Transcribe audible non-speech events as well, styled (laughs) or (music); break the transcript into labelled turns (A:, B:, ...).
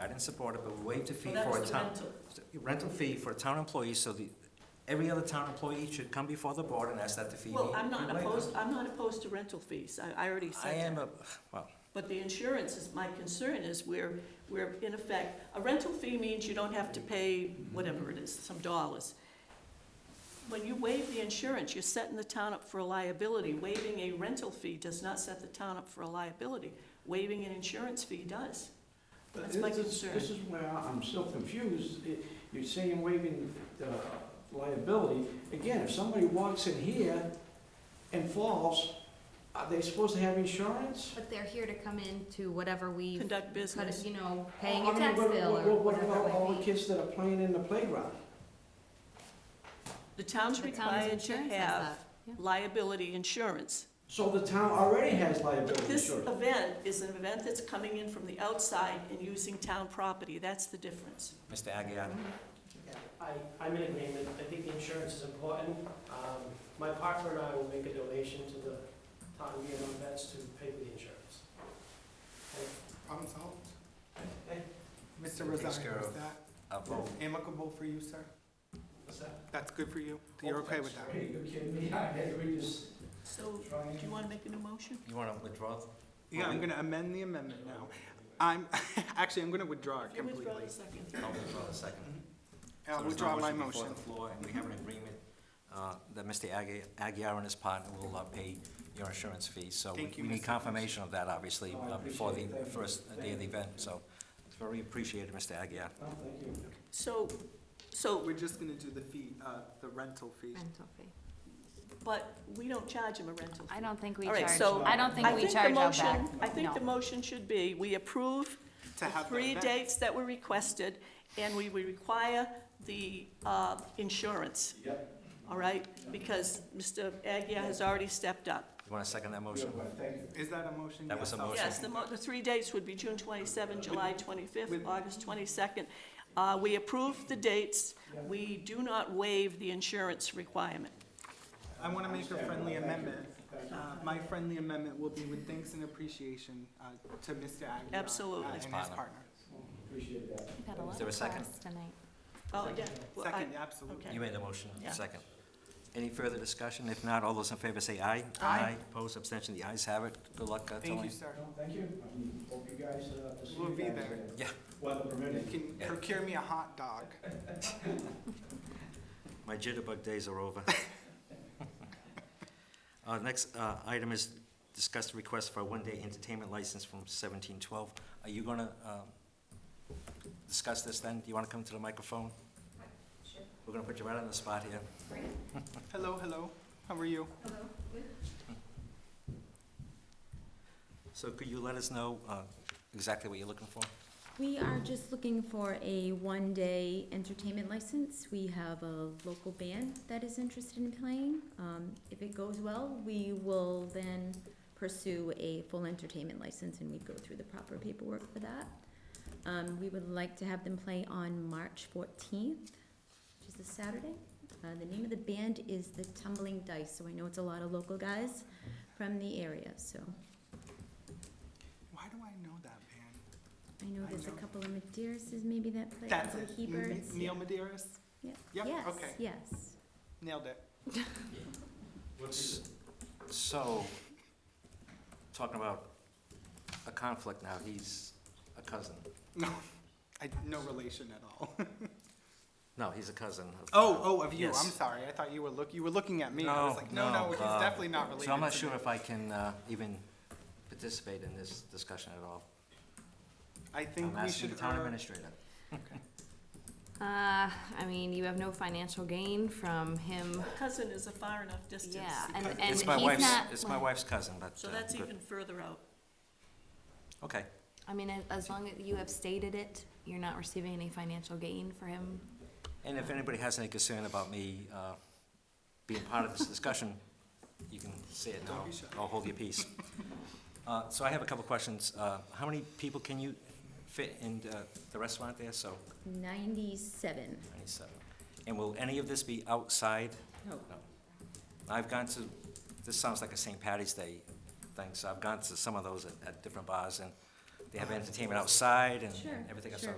A: and supported, but we waived the fee
B: Well, that
A: for a
B: was the
A: town.
B: rental.
A: Rental fee for a town employee, so the, every other town employee should come before the board and ask that the fee be.
B: Well, I'm not
A: be waived.
B: opposed, I'm not opposed to rental fees, I, I already
A: I
B: said
A: am,
B: that.
A: a- well,
B: But the insurance is, my concern is we're, we're in effect, a rental fee means you don't have
A: Mm-hmm.
B: to pay whatever it is, some dollars. When you waive the insurance, you're setting the town up for a liability. Waiving a rental fee does not set the town up for a liability. Waiving an insurance fee does. That's my
C: This is-
B: concern.
C: This is where I'm still confused. It- You're saying waiving uh, liability. Again, if somebody walks in here and falls, are they supposed to have insurance?
D: But they're here to come in to whatever we,
B: Conduct business.
D: you know, paying
C: I
D: a
C: mean,
D: tax
C: what-
D: bill
C: what-
D: or
C: What about all
D: whatever
C: the
D: it may be.
C: kids that are playing in the playground?
B: The town's
D: The town's
B: required to
D: insurance has
B: have
D: that, yeah.
B: liability insurance.
C: So the town already has
B: But
C: liability
B: this
C: insurance.
B: event is an event that's coming in from the outside and using town property. That's the difference.
A: Mr. Aguirre,
E: I, I'm in agreement, I think the insurance is important. Um, My partner and I will make a donation to the town of Vietnam vets to pay for the insurance.
F: Problem solved.
E: Okay.
F: Mr.
A: Takes
F: Rosario,
A: care
F: is
A: of-
F: that
A: a vote.
F: amicable for you, sir?
E: What's that?
F: That's good for you?
C: Oh,
F: You're okay with
C: Are
F: that?
C: you kidding me? (laughs) I had to just
B: So,
C: try
B: do you want to make an emotion?
A: You want to withdraw?
F: Yeah,
A: Oh,
F: I'm gonna amend the amendment now. I'm, (laughs) actually, I'm gonna withdraw it
B: If you withdraw
F: completely.
B: the second.
A: I'll withdraw the second.
F: I'll
A: So there's no
F: withdraw my
A: Before
F: motion.
A: the floor, and we have an agreement uh, that Mr. Agui- Aguirre and his partner will uh, pay your insurance fees. So we-
F: Thank you,
A: we need
F: Mr.
A: confirmation of that, obviously,
C: Oh, I
A: uh, before the
C: appreciate it. Thank you.
A: first day of the event. So it's very appreciated, Mr. Aguirre.
C: No, thank you.
B: So, so,
F: We're just gonna do the fee, uh, the rental fee.
D: Rental fee.
B: but we don't charge them a rental fee.
D: I don't think we
B: All right,
D: charge,
B: so
D: I don't
B: I
D: think we
B: think the
D: charge out
B: motion- I
D: back.
B: think the
D: No.
B: motion should be, we approve
F: To
B: the
F: have the
B: three
F: event.
B: dates that were requested, and we we require the uh, insurance,
C: Yep,
B: all right? Because Mr. Agia has already stepped up.
A: You want to second that motion?
C: beautiful, thank you.
F: Is that a motion?
A: That was a
F: I'll
A: motion.
B: Yes, the
F: second
B: mo-
F: that.
B: the three dates would be June 27, July 25th,
F: With-
B: August 22nd. Uh, We approve the dates. We do not waive the insurance requirement.
F: I want to make a friendly amendment. Uh, My friendly amendment will be with thanks and appreciation uh, to Mr. Aguirre. uh,
B: Absolutely.
F: And his
A: Partner.
F: partner.
C: Appreciate that.
D: You've had a lot
A: there a
D: for
A: second?
D: us tonight.
B: Oh, yeah. well, I-
F: Second, absolutely.
B: okay.
A: You made the motion,
B: Yeah.
A: second. Any further discussion? If not, all those in favor say aye.
F: Aye.
A: Opposed, abstention, the ayes have it. Good luck, uh,
F: Thank
A: Tony.
F: you, sir.
C: No, Thank you. I mean, Hope you guys, uh, to see
F: We'll
C: you
F: be
C: guys
F: there.
C: later.
A: Yeah.
C: Weather
F: You
C: permitting.
F: can
A: Yeah.
F: procure me a hot dog.
A: My jitterbug days are over. Uh, Next uh, item is discuss the request for a one-day entertainment license from 1712. Are you going to discuss this then? Do you want to come to the microphone? We're going to put you right on the spot here.
F: Hello, hello. How are you?
A: So could you let us know uh, exactly what you're looking for?
G: We are just looking for a one-day entertainment license. We have a local band that is interested in playing. Um, if it goes well, we will then pursue a full entertainment license and we'd go through the proper paperwork for that. Um, we would like to have them play on March fourteenth, which is a Saturday. Uh, the name of the band is the Tumbling Dice, so I know it's a lot of local guys from the area, so
F: Why do I know that man?
G: I know
F: I
G: there's a
F: know.
G: couple of Medeiros maybe that play,
F: That's
G: some
F: it?
G: Heberts.
F: N- Neil Medeiros?
G: Yeah.
F: Yep,
G: Yes,
F: okay.
G: yes.
F: Nailed it.
A: S- So, talking about a conflict now, he's a cousin.
F: No, I, no relation at all. (laughs)
A: No, he's a cousin. of- uh,
F: Oh, oh, of you. I'm
A: Yes.
F: sorry. I thought you were look, you were looking at me. I was like, no, no, he's
A: uh,
F: definitely not related.
A: So I'm not
F: to
A: sure
F: me.
A: if I can uh, even participate in this discussion at all.
F: I think
A: I'm
F: we
A: asking
F: should
A: the town
F: err-
A: administrator.
D: Uh, I mean, you have no financial gain from him,
B: Cousin is a far enough distance.
D: yeah, and, and
A: It's
D: he's
A: my wife's,
D: not.
A: it's my wife's cousin, but.
B: So
A: uh,
B: that's
A: good.
B: even further out.
A: Okay,
D: I mean, as- as long as you have stated it, you're not receiving any financial gain for him.
A: and if anybody has any concern about me uh, being part of this discussion, you can say it now.
F: Don't be shy.
A: I'll hold your peace. Uh, So I have a couple of questions. Uh, How many people can you fit in the- the restaurant there? So,
G: Ninety-seven.
A: 97. And will any of this be outside?
G: No.
A: I've gone to, this sounds like a St. Patty's Day thing, so I've gone to some of those at, at different bars, and they have entertainment outside and and
G: Sure,
A: everything else.
G: sure.